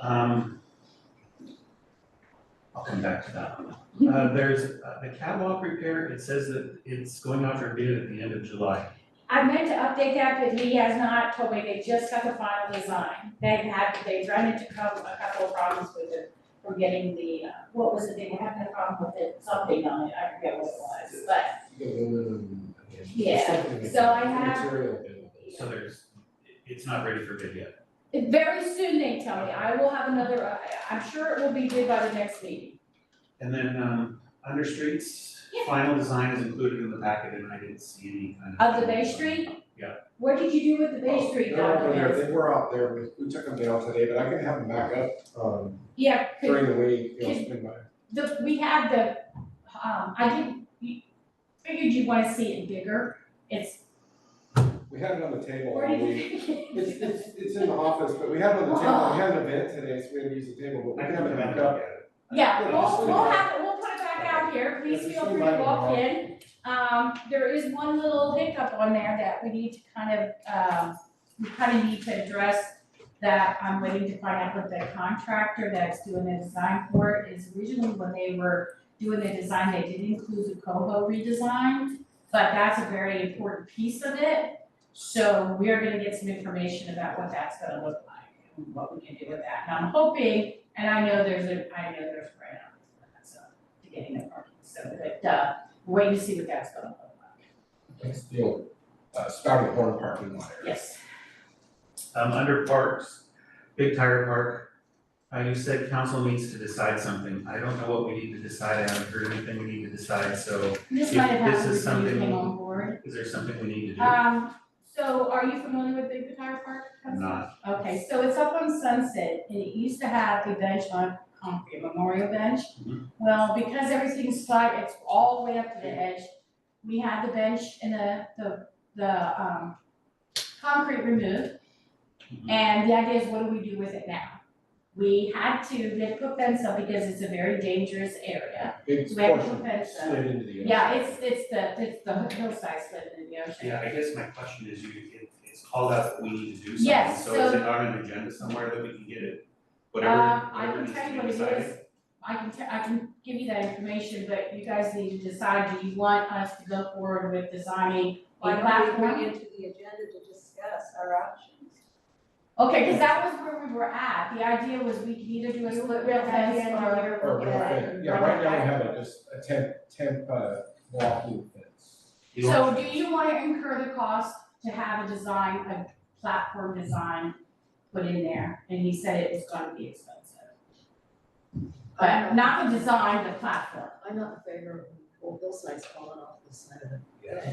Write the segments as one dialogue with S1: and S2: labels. S1: Um, I'll come back to that. one. Uh, there's, uh, the catwalk repair, it says that it's going out for bid at the end of July.
S2: I meant to update that, but he has not told me, they just got the final design. They've had, they've run into co- a couple of problems with it, from getting the, uh, what was it, they were having a problem with it, something on it, I forget what it was, but,
S3: Aluminum, yeah.
S2: Yeah,
S3: Something like
S2: so I
S3: that.
S2: have-
S3: Material available.
S1: So there's, it- it's not ready for bid yet.
S2: very soon, they tell me, I will have another, I, I'm sure it will be due by the next meeting.
S1: And then, um, under streets,
S2: Yeah.
S1: final design is included in the packet and I didn't see any kind of.
S2: Of the Bay Street?
S1: Yeah.
S2: What did you do with the Bay
S3: Oh,
S2: Street
S3: They're up there,
S2: documents?
S3: they were out there, we, we took them down today, but I can have them back up, um,
S2: Yeah, could-
S3: during the week, you know,
S2: could-
S3: swing by.
S2: the, we had the, um, I did, you- figured you wanna see it bigger, it's,
S3: We had it on the table
S2: where
S3: all
S2: did
S3: week. It's,
S2: you?
S3: it's, it's in the office, but we had it on the table, we had an event today, so we had to use the table, but we
S1: I
S3: can
S1: can
S3: have
S1: come
S3: it
S1: back
S3: back
S1: up
S3: up.
S1: at it.
S2: Yeah, we'll,
S3: Yeah,
S2: we'll
S3: just-
S2: have, it- we'll put it back out here, please
S3: Yeah,
S2: feel
S3: just
S2: free
S3: invite
S2: to
S3: them
S2: walk
S3: all.
S2: in. Um, there is one little hiccup on there that we need to kind of, uh, we kind of need to address that I'm waiting to find out what the contractor that's doing the design for it is originally when they were doing the design, they did include the coho redesign, but that's a very important piece of it. So we're gonna get some information about what that's gonna look like, and what we can do with that. And I'm hoping and I know there's a, I know there's a grant out there, so, to getting the parking, so, but, uh, wait to see what that's gonna look like.
S3: It's the old, uh, spouting horn parking lot area.
S2: Yes.
S1: Um, under parks, Big Tire Park, uh, you said council needs to decide something. I don't know what we need to decide. I haven't heard anything we need to decide, so
S2: This
S1: If
S2: might have
S1: this
S2: happened
S1: is something-
S2: when you came on board.
S1: is there something we need to do?
S2: Um, so are you familiar with Big Tire Park?
S1: I'm not.
S2: Okay, so it's up on Sunset, and it used to have a bench on concrete, a memorial bench.
S1: Mhm.
S2: Well, because everything's flat, it's all the way up to the edge, we had the bench and the, the, the, um, concrete removed.
S1: Mhm.
S2: And the idea is, what do we do with it now? We had to, they put fence up because it's a very dangerous area.
S3: Big
S2: So we have to
S3: portion
S2: fence up.
S3: slid into the.
S2: Yeah, it's, it's the, it's the hillside slip in the ocean.
S1: Yeah, I guess my question is, you, it, it's called out that we need to do
S2: Yes,
S1: something, so is
S2: so-
S1: it on an agenda somewhere that we can get it?
S2: Um, I
S1: Whatever,
S2: can tell
S1: whatever
S2: you what it
S1: needs
S2: is.
S1: to be decided.
S2: I can, te- I can give you that information, but you guys need to decide, do you want us to go forward with designing a
S4: Why don't we
S2: platform?
S4: bring it to the agenda to discuss our options?
S2: Okay, because that was where we were at, the idea was we could either do a split rail fence or,
S3: Or real fence, yeah, right now we have a, just a temp, temp, uh, blocking fence.
S1: You don't-
S2: so do you want to incur the cost to have a design, a platform design put in there? And he said it was gonna be expensive, but not the design, the platform.
S4: I'm not in favor of whole hillsides falling off the side of it.
S3: Yeah.
S4: I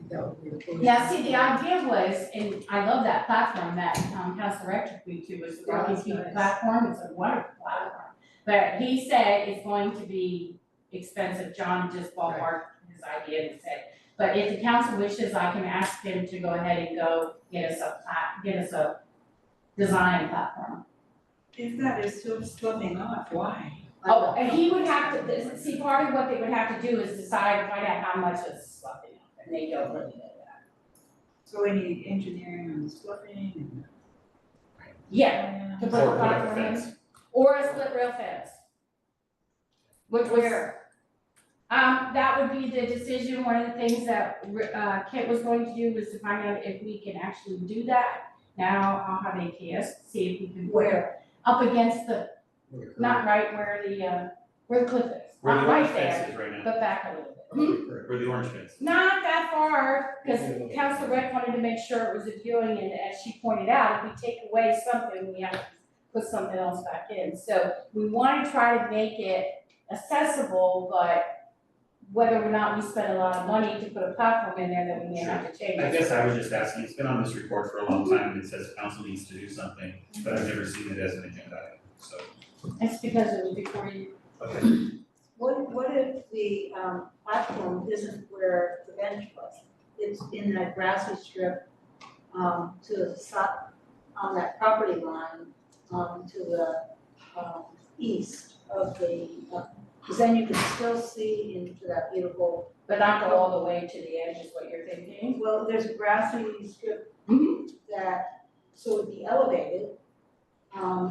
S4: think that would be a foolish.
S2: Yeah, see, the idea was, and I love that platform that, um, Council Rec took me to, was the
S4: Yeah,
S2: Rocky
S4: it's
S2: Peak
S4: nice.
S2: platform, it's a wonderful platform. But he said it's going to be expensive, John just ballparked his idea and said, but if the council wishes, I can ask him to go ahead and go get us a plat, get us a design platform.
S5: If that is still slipping off, why?
S2: Oh, and he would have to, this- see, part of what they would have to do is decide, find out how much it's sloughing off, and they don't really know that.
S5: So we need engineering on the slipping and.
S2: Yeah, to put
S1: Or put
S2: the
S1: up a
S2: platform in.
S1: fence.
S2: Or a split rail fence. Which was. Um, that would be the decision, one of the things that, uh, Kit was going to do was to find out if we can actually do that. Now I'll have AKS, see if we can.
S4: Where?
S2: Up against the,
S3: With a curve.
S2: not right where the, uh, where the cliff is,
S1: Where
S2: not
S1: the
S2: right
S1: orange
S2: there,
S1: fence is right now,
S2: but back a little bit.
S3: With a curve.
S1: where the orange fence.
S2: Not that far, because
S3: Yeah, yeah.
S2: Council Rec wanted to make sure it was a viewing, and as she pointed out, if we take away something, we have to put something else back in. So we want to try to make it accessible, but whether or not we spend a lot of money to put a platform in there that we may have to change.
S1: I guess I was just asking, it's been on this report for a long time, and it says council needs to do something, but I've never seen it as an agenda item, so.
S2: That's because it was before you,
S1: Okay,
S4: What, what if the, um, platform isn't where the bench was? It's in that grassy strip, um, to the south, on that property line, um, to the, um, east of the, because then you can still see into that beautiful
S2: but not go all the way to the edge is what you're thinking.
S4: Well, there's a grassy strip that, so it'd be elevated. Um,